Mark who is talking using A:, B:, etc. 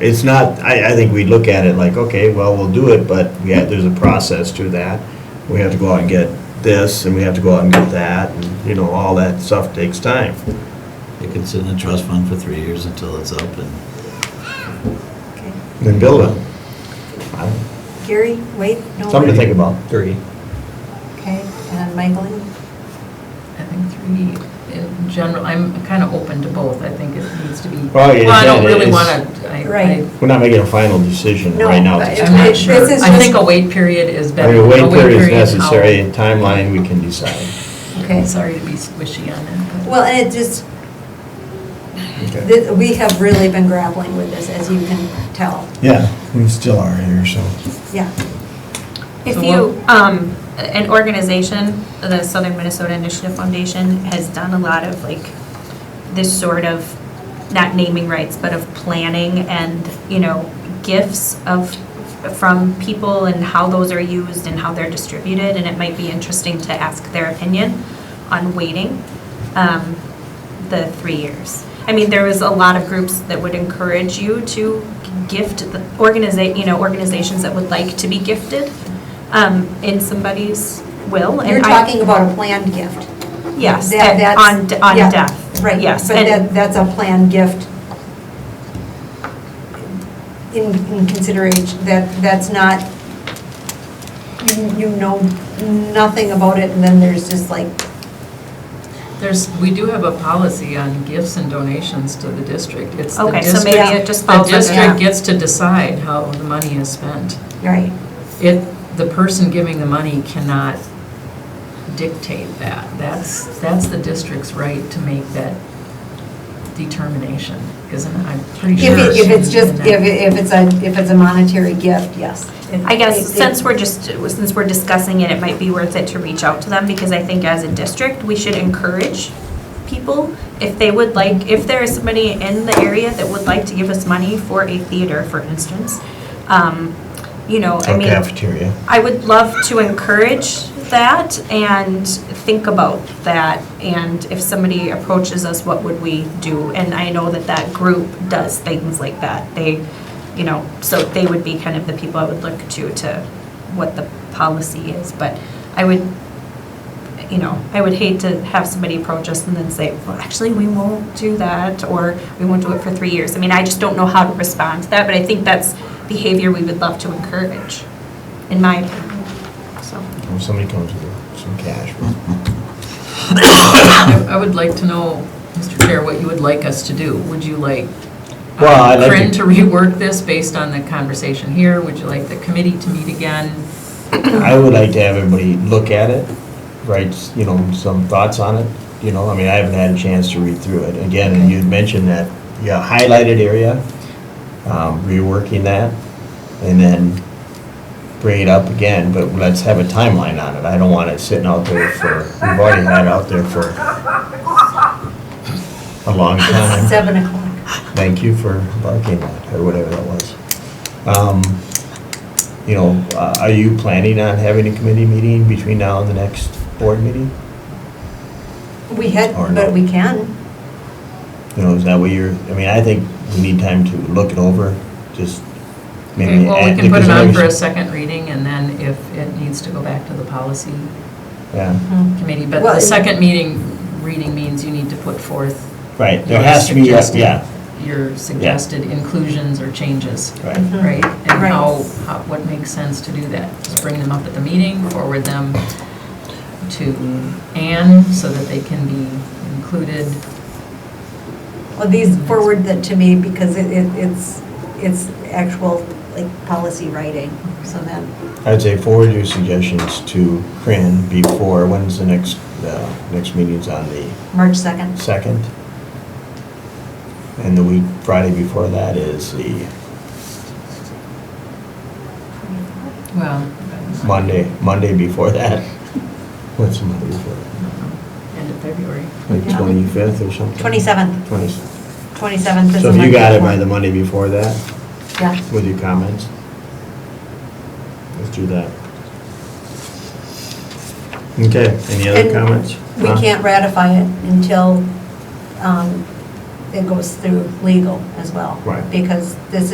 A: it's not, I, I think we look at it like, okay, well, we'll do it, but we have, there's a process to that. We have to go out and get this, and we have to go out and get that, and, you know, all that stuff takes time.
B: It could sit in a trust fund for three years until it's up and.
A: Then build it. I don't-
C: Gary, wait, no.
A: Something to
C: wait.
A: think about.
D: Three.
C: Okay, and Michael?
E: I think three in general, I'm kind of open to both, I think it needs to be.
A: Well, yeah,
E: I don't
A: yeah,
E: really
A: it's-
E: want to, I,
C: Right.
E: I-
A: We're not making a final decision
C: No,
A: right now.
C: but
A: at this
C: it's-
E: I'm
A: time.
E: not
C: This
E: sure.
C: is
E: I think
C: just-
E: a wait period is
A: I
E: better.
A: mean, a wait period is
E: out.
A: necessary, and timeline, we can decide.
C: Okay.
E: Sorry to be squishy on that. but-
C: Well, and it just,
A: Okay.
C: th- we have really been grappling with this, as you can tell.
A: Yeah, we still are here, so.
C: Yeah.
F: If
E: So
F: you, um, an organization, the Southern Minnesota Initiative Foundation has done a lot of like this sort of, not naming rights, but of planning and, you know, gifts of, from people and how those are used and how they're distributed, and it might be interesting to ask their opinion on waiting, um, the three years. I mean, there was a lot of groups that would encourage you to gift the organiza, you know, organizations that would like to be gifted, um, in somebody's will. and
C: You're
F: I-
C: talking about a planned gift.
F: Yes,
C: That-
F: and
C: that's-
F: on, d- on
C: yeah,
F: death.
C: Right,
F: Yes,
C: but
F: and-
C: that, that's a planned gift in, in consideration, that, that's not, you- you know nothing about it, and then there's just like,
E: There's, we do have a policy on gifts and donations to the district. It's the
F: Okay, so maybe
E: district-
F: it just
E: The
F: falls under
E: district
C: that.
E: gets to decide how the money is spent.
C: right,
E: It, the person giving the money cannot dictate that. That's, that's the district's right to make that determination, isn't it? I'm pretty
C: if
E: sure.
C: it, if it's just,
E: she's in
C: if,
E: that.
C: it- if it's a, if it's a monetary gift, yes.
F: I guess
C: It- it-
F: since we're just, since we're discussing it, it might be worth it to reach out to them because I think as a district, we should encourage people if they would like, if there is somebody in the area that would like to give us money for a theater, for instance, um, you know, I
A: Or
F: mean.
A: cafeteria.
F: I would love to encourage that and think about that. And if somebody approaches us, what would we do? And I know that that group does things like that. They, you know, so they would be kind of the people I would look to, to what the policy is. But I would, you know, I would hate to have somebody approach us and then say, well, actually, we won't do that, or we won't do it for three years. I mean, I just don't know how to respond to that, but I think that's behavior we would love to encourage in my opinion, so.
A: If somebody comes with some cash,
E: I I would like to know, Mr. Chair, what you would like us to do. Would you like um,
A: Well, I'd like to-
E: Corinne to rework this based on the conversation here? Would you like the committee to meet again?
A: I would like to have everybody look at it, write, you know, some thoughts on it, you know, I mean, I haven't had a chance to read through it. Again, and you'd mentioned that, yeah, highlighted area, um, reworking that, and then bring it up again, but let's have a timeline on it. I don't want it sitting out there for, we've already had it out there for a long time.
C: It's seven o'clock.
A: Thank you for embarking that, or whatever that was. Um, You know, uh, are you planning on having a committee meeting between now and the next board meeting?
C: We had,
A: Or no.
C: but we can.
A: You know, is that what you're, I mean, I think we need time to look it over, just
E: Okay,
A: maybe.
E: Well, we
A: add-
E: can put
A: because
E: it on
A: maybe-
E: for a second reading, and then if it needs to go back to the policy
A: Yeah,
E: committee. But
C: Well,
E: the
C: it-
E: second meeting, reading means you need to put forth.
A: right, there
E: your
A: has to be, yeah,
E: suggested-
A: yeah,
E: Your suggested inclusions or changes,
A: right.
C: Mhm.
E: right? And
C: Right.
E: how, how- what makes sense to do that? Just bring them up at the meeting, forward them to Anne so that they can be included.
C: Well, these forward that to me because it, it- it's, it's actual, like, policy writing, so then.
A: I'd say forward your suggestions to Corinne before, when's the next, uh, next meeting's on the
C: March 2nd.
A: second. And the week, Friday before that is the
E: Well. uh,
A: Monday, Monday before that. What's the Monday before that?
E: End of February.
A: Like
C: Yeah.
A: twenty-fifth or something?
C: 27th.
A: Twenty.
C: 27th is
A: So
C: a
A: if you got it by the
C: Monday.
A: Monday before that,
C: Yeah.
A: with your comments, let's do that. Okay, any other
C: And
A: comments?
C: We
A: Huh?
C: can't ratify it until um, it goes through legal as well.
A: Right.
C: Because this